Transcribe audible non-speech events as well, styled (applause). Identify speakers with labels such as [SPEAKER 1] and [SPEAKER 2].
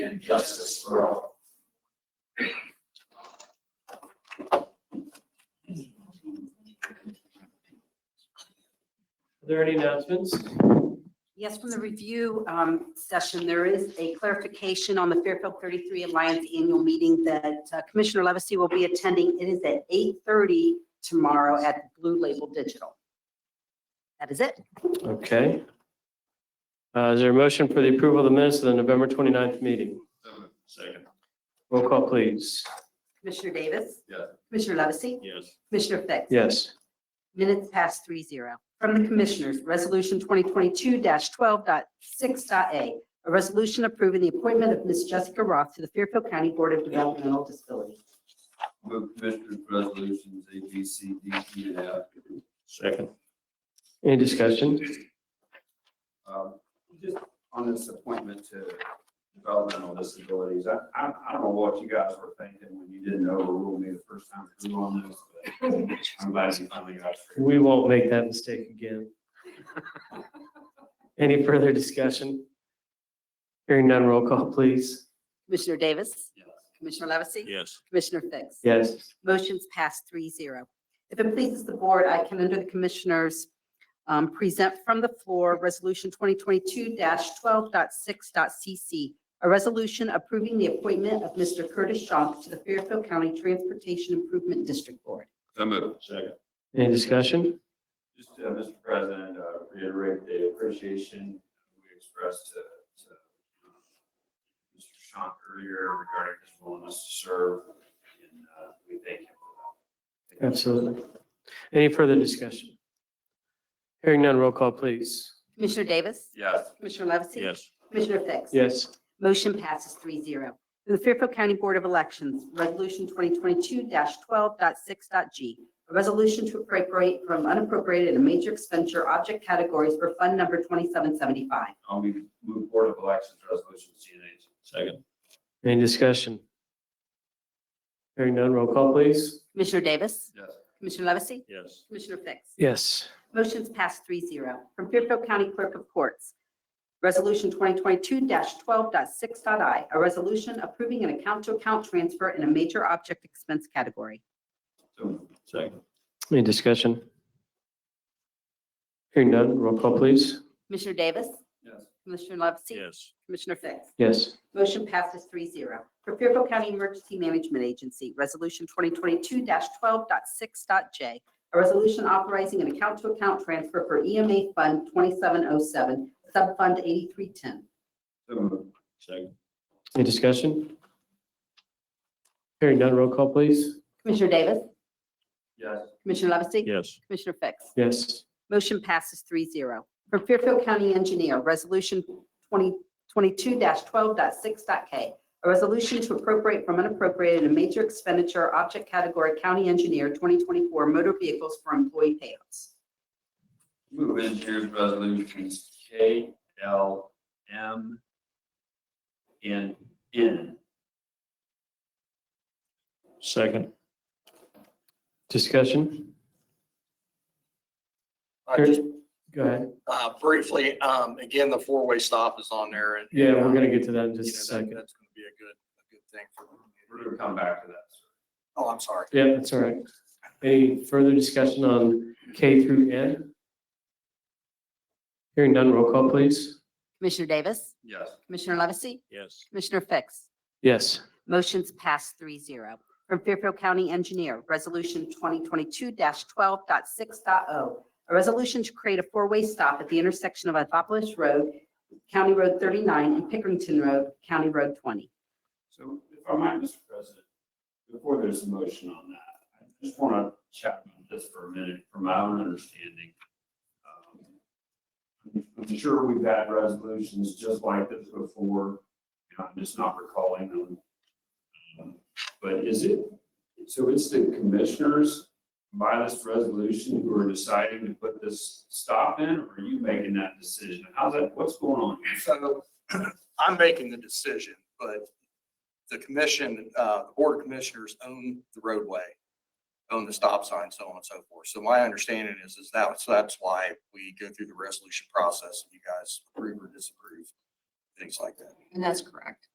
[SPEAKER 1] and justice for all.
[SPEAKER 2] Are there any announcements?
[SPEAKER 3] Yes, from the review um, session, there is a clarification on the Fairfield 33 Alliance Annual Meeting that uh, Commissioner Levesey will be attending. It is at 8:30 tomorrow at Blue Label Digital. That is it.
[SPEAKER 2] Okay. Uh, Is there a motion for the approval of the minutes of the November 29th meeting?
[SPEAKER 1] Second,
[SPEAKER 2] Roll call, please.
[SPEAKER 3] Commissioner Davis?
[SPEAKER 1] Yes.
[SPEAKER 3] Commissioner Levesey?
[SPEAKER 1] yes.
[SPEAKER 3] Commissioner Fix?
[SPEAKER 2] Yes.
[SPEAKER 3] Minutes past three zero. From the Commissioners, Resolution 2022-12.6.a, a resolution approving the appointment of Ms. Jessica Roth to the Fairfield County Board of Developmental Disabilities.
[SPEAKER 4] Move Commissioners' Resolutions A, B, C, D, E, and F.
[SPEAKER 1] Second.
[SPEAKER 2] Any discussion?
[SPEAKER 4] Um, Just on this appointment to developmental disabilities, I, I, I don't know what you guys were thinking when you didn't overrule me the first time through on this, but I'm glad you finally got through.
[SPEAKER 2] We won't make that mistake again. Any further discussion? Hearing none, roll call, please.
[SPEAKER 3] Commissioner Davis?
[SPEAKER 4] Yes.
[SPEAKER 3] Commissioner Levesey?
[SPEAKER 1] Yes.
[SPEAKER 3] Commissioner Fix?
[SPEAKER 2] Yes.
[SPEAKER 3] Motion's passed three zero. If it pleases the board, I can, under the Commissioners, um, present from the floor Resolution 2022-12.6.c.c., a resolution approving the appointment of Mr. Curtis Shank to the Fairfield County Transportation Improvement District Board.
[SPEAKER 4] So moved.
[SPEAKER 1] Second.
[SPEAKER 2] Any discussion?
[SPEAKER 4] Just, uh, Mr. President, uh, reiterate the appreciation we expressed to, to um, Mr. Sean earlier regarding his willingness to serve, and, uh, we thank him for that.
[SPEAKER 2] Absolutely. Any further discussion? Hearing none, roll call, please.
[SPEAKER 3] Commissioner Davis?
[SPEAKER 4] Yes.
[SPEAKER 3] Commissioner Levesey?
[SPEAKER 1] Yes.
[SPEAKER 3] Commissioner Fix?
[SPEAKER 2] Yes.
[SPEAKER 3] Motion passes three zero. From the Fairfield County Board of Elections, Resolution 2022-12.6.g, a resolution to appropriate from unappropriated and major expenditure object categories for Fund Number 2775.
[SPEAKER 4] I'll move, Um, move Board of Elections Resolution C and H.
[SPEAKER 1] Second.
[SPEAKER 2] Any discussion? Hearing none, roll call, please.
[SPEAKER 3] Commissioner Davis?
[SPEAKER 4] Yes.
[SPEAKER 3] Commissioner Levesey?
[SPEAKER 1] Yes.
[SPEAKER 3] Commissioner Fix?
[SPEAKER 2] Yes.
[SPEAKER 3] Motion's passed three zero. From Fairfield County Clerk of Courts, Resolution 2022-12.6.i, a resolution approving an account-to-account transfer in a major object expense category.
[SPEAKER 4] So moved.
[SPEAKER 1] Second.
[SPEAKER 2] Any discussion? Hearing none, roll call, please.
[SPEAKER 3] Commissioner Davis?
[SPEAKER 4] Yes.
[SPEAKER 3] Commissioner Levesey?
[SPEAKER 1] Yes.
[SPEAKER 3] Commissioner Fix?
[SPEAKER 2] Yes.
[SPEAKER 3] Motion passes three zero. For Fairfield County Emergency Management Agency, Resolution 2022-12.6.j, a resolution authorizing an account-to-account transfer for EMA Fund 2707, Subfund 8310.
[SPEAKER 4] So moved.
[SPEAKER 1] Second.
[SPEAKER 2] Any discussion? Hearing none, roll call, please.
[SPEAKER 3] Commissioner Davis?
[SPEAKER 4] Yes.
[SPEAKER 3] Commissioner Levesey?
[SPEAKER 1] Yes.
[SPEAKER 3] Commissioner Fix?
[SPEAKER 2] Yes.
[SPEAKER 3] Motion passes three zero. For Fairfield County Engineer, Resolution 2022-12.6.k, a resolution to appropriate from unappropriated and major expenditure object category County Engineer 2024 motor vehicles for employee payouts.
[SPEAKER 4] Move Engineers Resolutions K, L, M, and N.
[SPEAKER 1] Second.
[SPEAKER 2] Discussion?
[SPEAKER 5] Uh, Just
[SPEAKER 2] Go ahead.
[SPEAKER 5] uh, briefly, um, again, the four-way stop is on there and.
[SPEAKER 2] Yeah, we're going to get to that in
[SPEAKER 5] You know,
[SPEAKER 2] just a
[SPEAKER 5] that-
[SPEAKER 2] second.
[SPEAKER 5] That's going to be a good, a good thing for.
[SPEAKER 4] We're gonna come back to that, sir.
[SPEAKER 5] Oh, I'm sorry.
[SPEAKER 2] Yeah, that's all right. Any further discussion on K through N? Hearing none, roll call, please.
[SPEAKER 3] Commissioner Davis?
[SPEAKER 4] Yes.
[SPEAKER 3] Commissioner Levesey?
[SPEAKER 1] Yes.
[SPEAKER 3] Commissioner Fix?
[SPEAKER 2] Yes.
[SPEAKER 3] Motion's passed three zero. From Fairfield County Engineer, Resolution 2022-12.6.o, a resolution to create a four-way stop at the intersection of Anthopolis Road, County Road 39, and Pickerington Road, County Road 20.
[SPEAKER 4] So if I might, Mr. President, before there's a motion on that, I just want to chat about this for a minute from my own understanding. Um, I'm sure we've had resolutions just like this before, you know, I'm just not recalling them. Um, But is it, so it's the commissioners by this resolution who are deciding to put this stop in? Or are you making that decision? How's that, what's going on? here?
[SPEAKER 5] So (clears throat) I'm making the decision, but the commission, uh, the board of commissioners own the roadway, own the stop sign, so on and so forth. So my understanding is, is that, so that's why we go through the resolution process and you guys approve or disapprove, things like that.
[SPEAKER 3] And that's correct.